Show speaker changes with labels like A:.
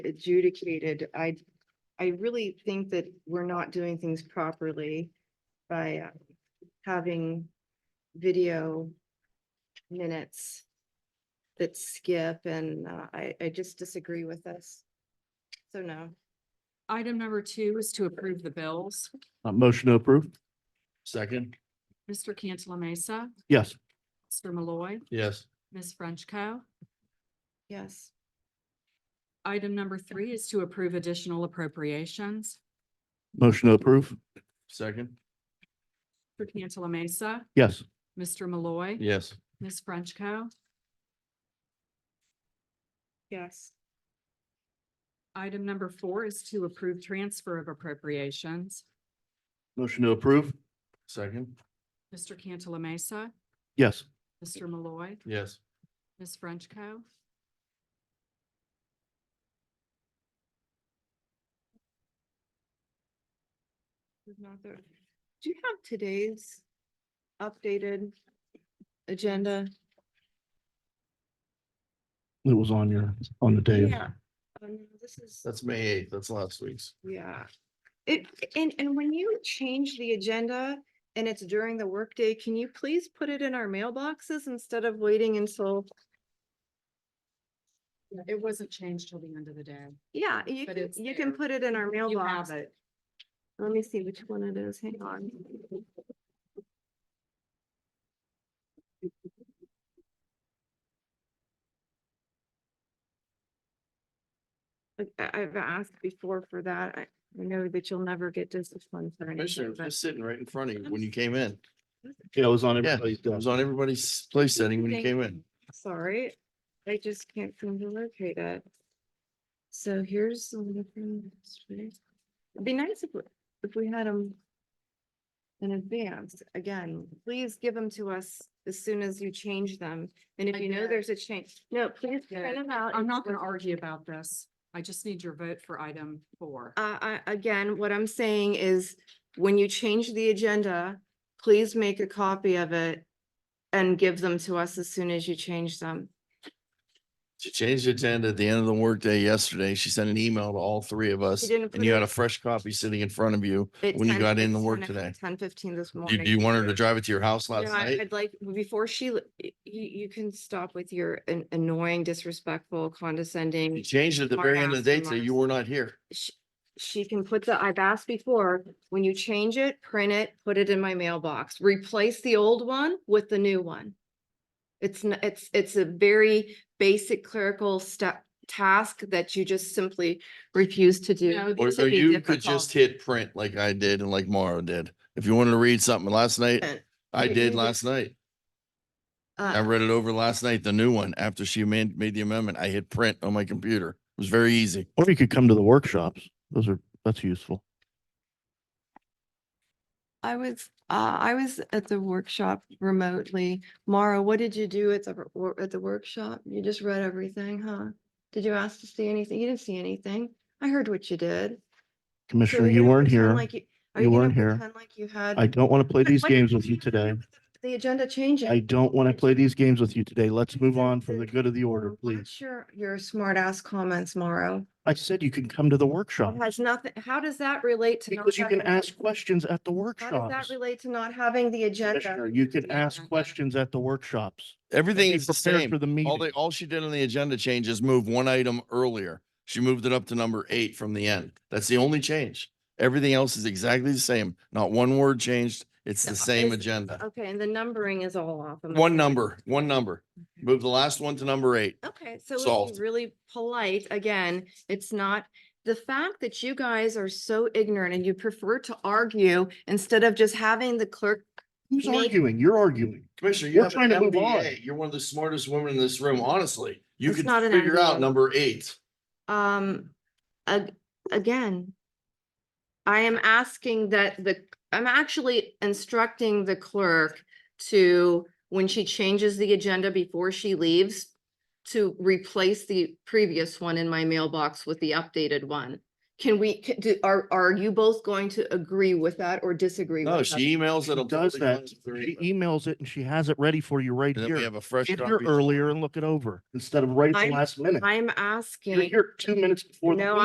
A: adjudicated, I, I really think that we're not doing things properly by uh, having video minutes that skip and uh, I, I just disagree with this. So no.
B: Item number two is to approve the bills.
C: Uh, motion to approve. Second.
B: Mr. Cantala Mesa,
C: Yes.
B: Mr. Malloy,
C: Yes.
B: Ms. Frenchco.
A: Yes.
B: Item number three is to approve additional appropriations.
C: Motion to approve. Second.
B: Mr. Cantala Mesa,
C: Yes.
B: Mr. Malloy,
C: Yes.
B: Ms. Frenchco.
A: Yes.
B: Item number four is to approve transfer of appropriations.
C: Motion to approve. Second.
B: Mr. Cantala Mesa,
C: Yes.
B: Mr. Malloy,
C: Yes.
B: Ms. Frenchco.
A: There's not there. Do you have today's updated agenda?
C: It was on your, on the day.
A: Yeah. Um, This is.
C: That's May eighth. That's last week's.
A: Yeah. It, and, and when you change the agenda and it's during the workday, can you please put it in our mailboxes instead of waiting until,
B: It wasn't changed till the end of the day.
A: yeah, you,
B: But
A: can-
B: it's
A: you can
B: there.
A: put it in our
B: You have
A: mailbox.
B: it.
A: Let me see which one it is. Hang on. I- I, I've asked before for that. I I know that you'll never get disciplined for anything,
D: Commissioner, it was
A: but
D: just sitting right in front of you when you came in.
C: Yeah, it was on
D: Yeah,
C: everybody's
D: it was
C: desk.
D: on everybody's place setting when you
A: Thank
D: came in.
A: sorry. I just can't seem to locate it. So here's the thing. It'd be nice if, we- if we had them in advance. Again, please give them to us as soon as you change them. And if
B: I
A: you know
B: did.
A: there's a change, no, please print
B: did.
A: them out.
B: I'm
A: and
B: not going to
A: forward-
B: argue about this. I just need your vote for item four.
A: Uh, I, again, what I'm saying is when you change the agenda, please make a copy of it and give them to us as soon as you change them.
D: She changed the agenda at the end of the workday yesterday. She sent an email to all three of us
A: didn't
D: and
A: put
D: you
A: it-
D: had a fresh copy sitting in front of you. When you got in to work today.
A: Ten fifteen this
D: Do
A: morning.
D: do you want her to drive it to your house last
A: No, I-
D: night?
A: I'd like, before she, l- y- you, you can stop with your an- annoying, disrespectful,
D: You
A: condescending.
D: changed it at the
A: Mark
D: very end of the day
A: asked
D: so
A: him
D: you
A: last-
D: were not here.
A: Sh- She can put the, I've asked before, when you change it, print it, put it in my mailbox, replace the old one with the new one. It's, n- it's, it's a very basic clerical step, task that you just simply refuse to do.
B: No,
D: Or
B: these
D: or
B: would be
D: you could just
B: difficult.
D: hit print like I did and like Mara did. If you wanted to read something last night,
A: And
D: I
A: you-
D: did
A: you-
D: last night. I
A: Uh,
D: read it over last night, the new one, after she made, made the amendment. I hit print on my computer. It was very easy.
C: Or you could come to the workshops. Those are, that's useful.
A: I was, uh, I was at the workshop remotely. Mara, what did you do at the, r- wor- at the workshop? You just read everything, huh? Did you ask to see anything? You didn't see anything. I heard what you did. So
C: Commissioner,
A: you're
C: you
A: gonna
C: weren't
A: pretend
C: here.
A: like Are
C: You
A: you gonna
C: weren't here.
A: pretend Like you had.
C: I don't want to play
A: But
C: these
A: what
C: games
A: did
C: with
A: you
C: you
A: do
C: today.
A: with The agenda changes.
C: I don't want to play these games with you today. Let's move on for the good of the order, please.
A: Sure, your smart ass comments, Mara.
C: I said you can come to the workshop.
A: It has nothing, how does that relate to? not
C: Because you can
A: having-
C: ask questions at the
A: How does that
C: workshops.
A: relate to not having the agenda?
C: Commissioner, you can
B: Yeah.
C: ask questions at the workshops.
D: Everything
C: Be
D: is the
C: prepared
D: same.
C: For the
D: All they,
C: meeting.
D: all she did on the agenda change is move one item earlier. She moved it up to number eight from the end. That's the only change. Everything else is exactly the same. Not one word changed. It's
A: No,
D: the same
A: it's-
D: agenda.
A: Okay, and the numbering is all off. Am I
D: One
A: correct?
D: number, one number. Move the last one to number eight.
A: Okay, so let's
D: solved.
A: be really polite. Again, it's not, the fact that you guys are so ignorant and you prefer to argue instead of just having the clerk.
C: Who's
A: make-
C: arguing? You're arguing.
D: Commissioner,
C: We're
D: you have
C: trying
D: an
C: to move on.
D: MBA. You're one of the smartest women in this room, honestly. You
A: It's
D: could
A: not an
D: figure
A: MBA.
D: out number eight.
A: Um, ag- again. I am asking that the, I'm actually instructing the clerk to, when she changes the agenda before she leaves. To replace the previous one in my mailbox with the updated one. Can we, c- do- are, are you both going to agree with that or disagree with
D: No,
A: that?
D: she emails it.
C: She does that. She emails it and she has it ready for you right
D: And then we
C: here.
D: have a fresh
C: Get here
D: copy.
C: earlier and look it over instead of right at the
A: I'm-
C: last minute.
A: I'm
C: You're
A: asking.
C: here two minutes before the
A: No,
C: meeting.